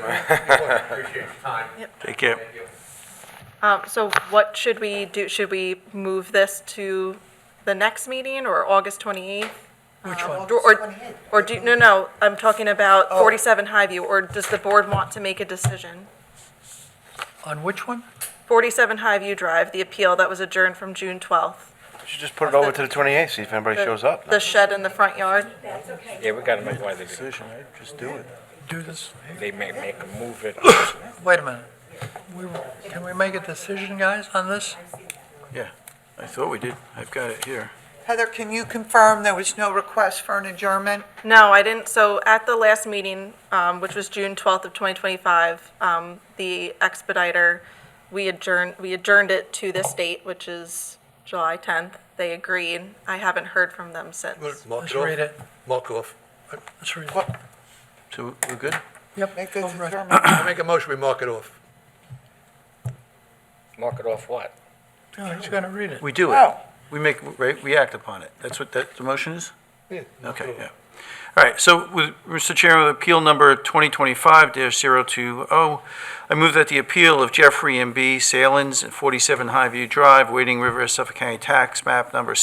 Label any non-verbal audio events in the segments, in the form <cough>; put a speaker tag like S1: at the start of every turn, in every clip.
S1: Appreciate your time.
S2: Thank you.
S1: Thank you.
S3: Um, so what should we do? Should we move this to the next meeting or August 28th?
S4: Which one?
S3: Um, Or- Or, or do, no, no, I'm talking about 47 Highview, or does the board want to make a decision?
S4: On which one?
S3: 47 Highview Drive, the appeal that was adjourned from June 12th.
S5: Should just put it over to the 28th, see if anybody
S3: The-
S5: shows up.
S3: The shed in the front yard.
S6: Yeah, we gotta make why they, do it.
S5: Decision, right? Just do it.
S4: Do this,
S6: they make, make a move it.
S4: <coughs> wait a minute. We, can we make a decision, guys, on this?
S2: I thought we did. I've got it here.
S7: Heather, can you confirm there was no request for an adjournment?
S3: No, I didn't, so at the last meeting, um, which was June 12th of 2025, um, the expediter, we adjourned, we adjourned it to this date, which is July 10th. They agreed. I haven't heard from them since.
S4: Let's read it.
S8: Mark it off.
S4: Let's read it.
S8: What?
S5: So we're good?
S4: Yep.
S7: Make
S4: go
S7: this
S4: Oh, right.
S7: adjournment.
S8: I make a motion, we mark it off.
S6: Mark it off what?
S4: No, he's gonna read it.
S2: We do it.
S7: Oh,
S2: We make, right, we act upon it. That's what that, the motion is?
S8: Yeah.
S2: Okay, yeah. All right, so with, Mr. Chairman, with appeal number 2025-020, oh, I move that the appeal of Jeffrey M. B. Salins, 47 Highview Drive, Wading River, Suffolk County Tax Map Number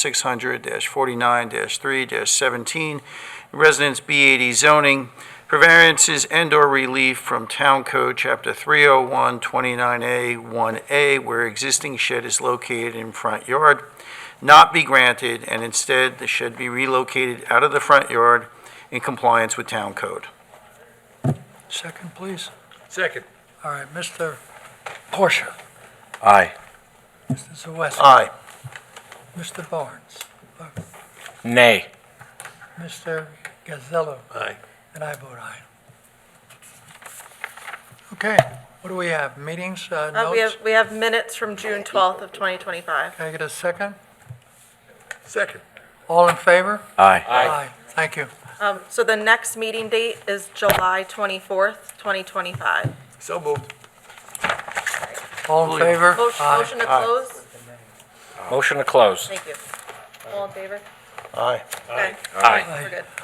S2: 600-49-3-17, Residence B80 zoning, for variances and/or relief from Town Code Chapter 301, 29A, 1A, where existing shed is located in front yard, not be granted, and instead the shed be relocated out of the front yard in compliance with town code.
S4: Second, please.
S8: Second.
S4: All right, Mr. Portia,
S5: Aye.
S4: Mr. Zaweski,
S2: Aye.
S4: Mr. Barnes,
S6: Nay.
S4: Mr. Gazzello,
S8: Aye.
S4: and I vote aye. Okay, what do we have? Meetings, uh,
S3: Uh, we
S4: notes?
S3: have, we have minutes from June 12th of 2025.
S4: Can I get a second?
S8: Second.
S4: All in favor?
S5: Aye.
S6: Aye.
S4: Thank you.
S3: Um, so the next meeting date is July 24th, 2025.
S8: So moved.
S4: All in favor?
S3: Motion,
S4: Aye.
S3: motion to close?
S6: Motion to close.
S3: Thank you. All in favor?
S5: Aye.
S3: Okay,
S6: Aye.
S3: we're good.